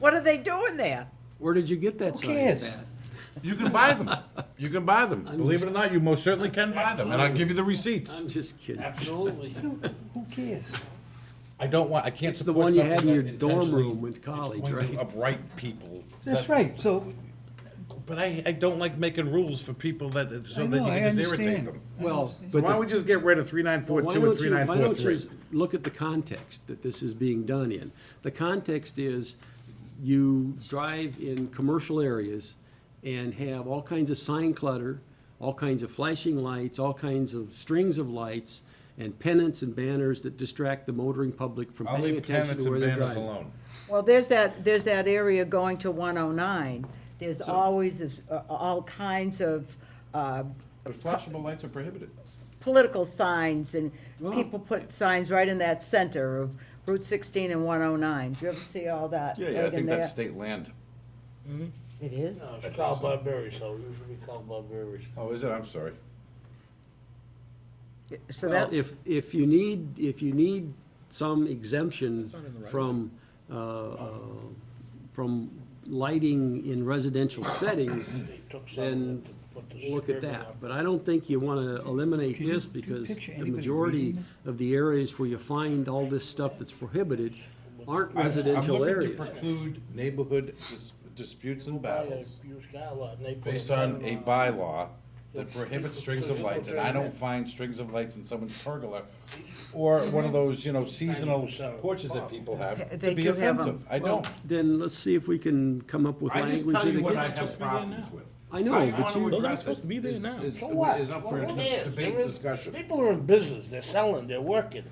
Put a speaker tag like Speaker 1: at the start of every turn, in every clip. Speaker 1: What are they doing there?
Speaker 2: Where did you get that sign?
Speaker 3: cares?
Speaker 2: Pat?
Speaker 4: You can buy them. You can buy them. Believe it or not, you most certainly can buy them, and I'll give you the receipts.
Speaker 2: I'm just kidding.
Speaker 5: Absolutely.
Speaker 3: Who cares?
Speaker 4: I don't want, I can't
Speaker 2: It's the
Speaker 4: support
Speaker 2: one you had in
Speaker 4: something
Speaker 2: your
Speaker 4: that
Speaker 2: dorm
Speaker 4: intentionally-
Speaker 2: room with college,
Speaker 4: It's going to
Speaker 2: right?
Speaker 4: Upright people.
Speaker 3: That's
Speaker 4: That-
Speaker 3: right, so,
Speaker 4: But I, I don't like making rules for people that,
Speaker 3: I
Speaker 4: so that you
Speaker 3: know, I
Speaker 4: can just irritate
Speaker 3: understand.
Speaker 4: them.
Speaker 2: Well,
Speaker 4: So
Speaker 2: but
Speaker 4: why
Speaker 2: the
Speaker 4: don't we just get rid of three nine four
Speaker 2: Why
Speaker 4: two and
Speaker 2: don't
Speaker 4: three
Speaker 2: you,
Speaker 4: nine
Speaker 2: why
Speaker 4: four
Speaker 2: don't you
Speaker 4: three?
Speaker 2: s- look at the context that this is being done in? The context is you drive in commercial areas and have all kinds of sign clutter, all kinds of flashing lights, all kinds of strings of lights, and pennants and banners that distract the motoring public from
Speaker 4: I'll
Speaker 2: paying
Speaker 4: leave
Speaker 2: attention
Speaker 4: pennants
Speaker 2: to where
Speaker 4: and
Speaker 2: they're
Speaker 4: banners
Speaker 2: driving.
Speaker 4: alone.
Speaker 1: Well, there's that, there's that area going to 109. There's always this, uh, all kinds of uh,
Speaker 4: But flashable lights are prohibited.
Speaker 1: political signs, and people put signs right in that center of Route 16 and 109. Do you ever see all that?
Speaker 4: Yeah, yeah, I
Speaker 1: right in
Speaker 4: think that's
Speaker 1: there?
Speaker 4: state land.
Speaker 1: It is?
Speaker 5: No, it's called Barberry, so it used to be called Barberry.
Speaker 4: Oh, is it? I'm sorry.
Speaker 1: So
Speaker 2: Well,
Speaker 1: that,
Speaker 2: if, if you need, if you need some exemption from, uh, uh, from lighting in residential settings,
Speaker 5: They took some
Speaker 2: then
Speaker 5: and put the
Speaker 2: we'll look at
Speaker 5: suburban
Speaker 2: that.
Speaker 5: up.
Speaker 2: But I don't think you want to eliminate
Speaker 3: Can you-
Speaker 2: this
Speaker 3: can you
Speaker 2: because
Speaker 3: picture
Speaker 2: the
Speaker 3: anybody
Speaker 2: majority
Speaker 3: reading
Speaker 2: of the areas where you find all this stuff that's prohibited aren't residential areas.
Speaker 4: preclude neighborhood dis- disputes and
Speaker 5: Buy a
Speaker 4: battles
Speaker 5: used car lot and they put
Speaker 4: based on a
Speaker 5: banner
Speaker 4: bylaw that prohibits strings of lights, and I don't find strings of lights in someone's pergola or one of those, you know, seasonal porches that people have
Speaker 1: They
Speaker 4: to be
Speaker 1: do have 'em.
Speaker 4: offensive. I don't.
Speaker 2: Then let's see if we can come up with
Speaker 4: I just
Speaker 2: language
Speaker 4: tell
Speaker 2: that
Speaker 4: you what I
Speaker 2: against
Speaker 4: have
Speaker 2: it.
Speaker 4: problems with.
Speaker 2: I know,
Speaker 4: How
Speaker 2: but
Speaker 4: you wanna
Speaker 2: you- Those aren't
Speaker 4: address
Speaker 6: supposed
Speaker 4: it
Speaker 6: to be there
Speaker 4: is-
Speaker 6: now.
Speaker 4: is-
Speaker 5: So what?
Speaker 4: Is up for
Speaker 5: Who cares?
Speaker 4: debate,
Speaker 5: There is-
Speaker 4: discussion.
Speaker 5: People are in business, they're selling, they're working.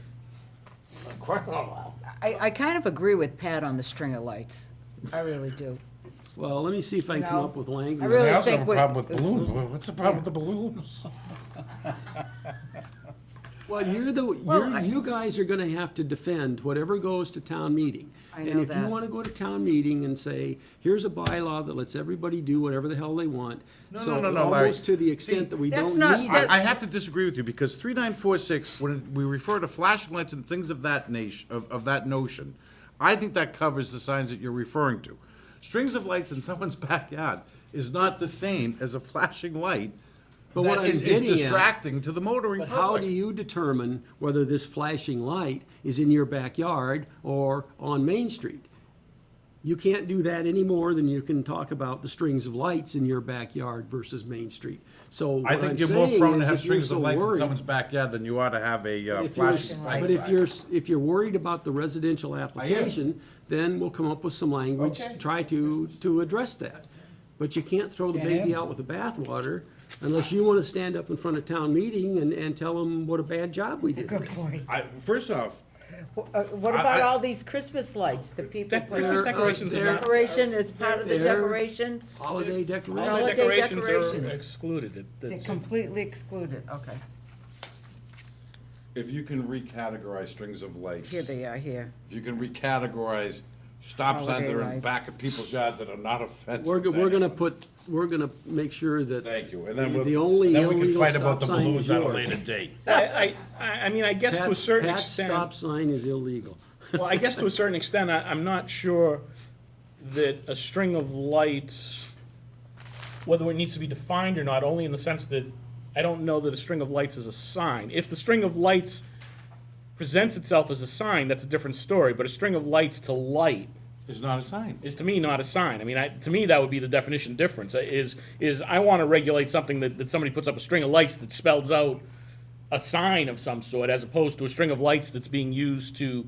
Speaker 5: For crying out loud.
Speaker 1: I, I kind of agree with Pat on the string of lights. I really do.
Speaker 2: Well, let me see if I can come
Speaker 1: No.
Speaker 2: up with language.
Speaker 1: really
Speaker 4: I also
Speaker 1: think
Speaker 4: have a
Speaker 1: what-
Speaker 4: problem with balloons. Well, What's the problem with the balloons?
Speaker 2: Well, you're the,
Speaker 1: Well, I-
Speaker 2: you're, you guys are gonna have to defend whatever goes to town meeting.
Speaker 1: I know
Speaker 2: And if you
Speaker 1: that.
Speaker 2: wanna go to town meeting and say, here's a bylaw that lets everybody do whatever the hell they want.
Speaker 4: No,
Speaker 2: so
Speaker 4: no, no, no, Larry.
Speaker 2: Almost to the
Speaker 4: See,
Speaker 2: extent that we
Speaker 1: That's
Speaker 2: don't
Speaker 1: not-
Speaker 2: need
Speaker 1: that-
Speaker 2: it.
Speaker 4: I, I have to disagree with you because three nine four six, when we refer to flashing lights and things of that nation, of, of that notion, I think that covers the signs that you're referring to. Strings of lights in someone's backyard is not the same as a flashing light
Speaker 2: But what
Speaker 4: that
Speaker 2: I'm
Speaker 4: is, is
Speaker 2: getting at-
Speaker 4: distracting to the motoring
Speaker 2: But
Speaker 4: public.
Speaker 2: how do you determine whether this flashing light is in your backyard or on Main Street? You can't do that any more than you can talk about the strings of lights in your backyard versus Main Street. So what
Speaker 4: I
Speaker 2: I'm saying
Speaker 4: think
Speaker 2: is
Speaker 4: you're more prone to have
Speaker 2: if you're
Speaker 4: strings
Speaker 2: so
Speaker 4: of lights in
Speaker 2: worried-
Speaker 4: someone's backyard than you ought to have a uh,
Speaker 2: If you're-
Speaker 4: flashing light.
Speaker 2: But if
Speaker 4: sign.
Speaker 2: you're, s- if you're worried about the residential application, then we'll come up with some language,
Speaker 4: Okay.
Speaker 2: try to, to address that. But you can't throw the
Speaker 3: Can't have
Speaker 2: baby
Speaker 3: it.
Speaker 2: out with the bathwater unless you want to stand up in front of town meeting and, and tell them what a bad job we did.
Speaker 1: Good
Speaker 2: with it.
Speaker 1: point.
Speaker 4: I, first off,
Speaker 1: Wh- uh, What
Speaker 4: I-
Speaker 1: about
Speaker 4: I-
Speaker 1: all these Christmas lights that people
Speaker 6: That
Speaker 1: put
Speaker 2: They're,
Speaker 6: Christmas
Speaker 2: uh,
Speaker 1: up?
Speaker 6: decorations are
Speaker 2: they're
Speaker 6: not-
Speaker 1: Decoration is part of the
Speaker 2: They're-
Speaker 1: decorations?
Speaker 2: Holiday
Speaker 1: Holiday
Speaker 2: decoration.
Speaker 6: All the decorations are
Speaker 1: decorations.
Speaker 6: excluded. It-
Speaker 1: They're
Speaker 6: that's it.
Speaker 1: completely excluded, okay.
Speaker 4: if you can recategorize strings of lights.
Speaker 1: Here they are here.
Speaker 4: If you can recategorize stop signs
Speaker 1: Holiday
Speaker 4: that are in
Speaker 1: lights.
Speaker 4: back of people's yards that are not offensive.
Speaker 2: We're, go-
Speaker 4: to
Speaker 2: we're gonna
Speaker 4: anyone.
Speaker 2: put, we're gonna make sure that.
Speaker 4: Thank you, and then
Speaker 2: the-
Speaker 4: we'll.
Speaker 2: The only
Speaker 4: then we can
Speaker 2: illegal
Speaker 4: fight about
Speaker 2: stop
Speaker 4: the
Speaker 2: sign is
Speaker 4: balloons at a
Speaker 2: yours.
Speaker 4: later date.
Speaker 6: I, I, I mean, I guess to a
Speaker 2: Pat's-
Speaker 6: certain
Speaker 2: Pat's stop
Speaker 6: extent,
Speaker 2: sign is illegal.
Speaker 6: well, I guess to a certain extent, I, I'm not sure that a string of lights, whether it needs to be defined or not, only in the sense that I don't know that a string of lights is a sign. If the string of lights presents itself as a sign, that's a different story, but a string of lights to light
Speaker 4: It's not a sign.
Speaker 6: is to me not a sign. I mean, I, to me, that would be the definition difference, uh, is, is I want to regulate something that, that somebody puts up a string of lights that spells out a sign of some sort, as opposed to a string of lights that's being used to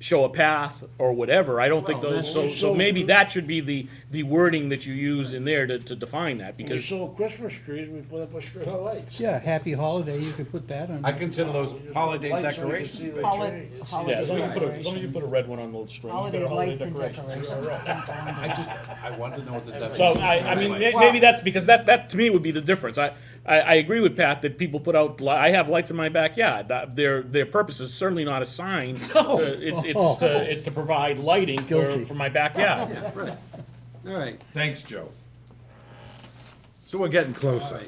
Speaker 6: show a path or whatever. I don't think
Speaker 2: Well,
Speaker 6: those, so,
Speaker 2: that's-
Speaker 6: so maybe that should be the, the wording that you use in there to, to define that,
Speaker 5: We
Speaker 6: because,
Speaker 5: sold Christmas trees, we put up a string of lights.
Speaker 3: yeah, happy holiday, you can put that on.
Speaker 4: I consider those holiday
Speaker 5: Lights so you can see
Speaker 4: decorations.
Speaker 5: the
Speaker 1: Holiday,
Speaker 5: trees.
Speaker 6: yeah, as long as
Speaker 1: holiday
Speaker 6: you put a, as long as you put a
Speaker 1: decorations.
Speaker 6: red one on the string, you
Speaker 1: Holiday
Speaker 6: got a holiday
Speaker 1: lights and
Speaker 6: decoration.
Speaker 1: decorations.
Speaker 4: I just, I want to know what the definition
Speaker 6: So
Speaker 4: is.
Speaker 6: I, I mean, may-
Speaker 4: Like,
Speaker 6: maybe that's because that, that to me would be the difference. I, I, I agree with Pat that people put out. li- I have lights in my backyard. That- Their their purpose is certainly not a sign. No. it's it's to, it's to provide lighting for,
Speaker 3: Guilty.
Speaker 6: for my backyard.
Speaker 2: Yeah, right. All right,
Speaker 4: Thanks, Joe. So we're getting closer.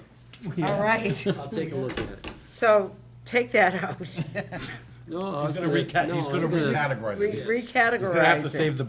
Speaker 1: All right,
Speaker 2: I'll take a look at it.
Speaker 1: so take that out.
Speaker 2: No, I was
Speaker 4: He's gonna reca,
Speaker 2: no,
Speaker 4: he's
Speaker 2: I
Speaker 4: gonna
Speaker 2: was gonna-
Speaker 4: recategorize
Speaker 1: Re-
Speaker 4: it.
Speaker 1: Recategorize it.
Speaker 4: He's gonna have to save the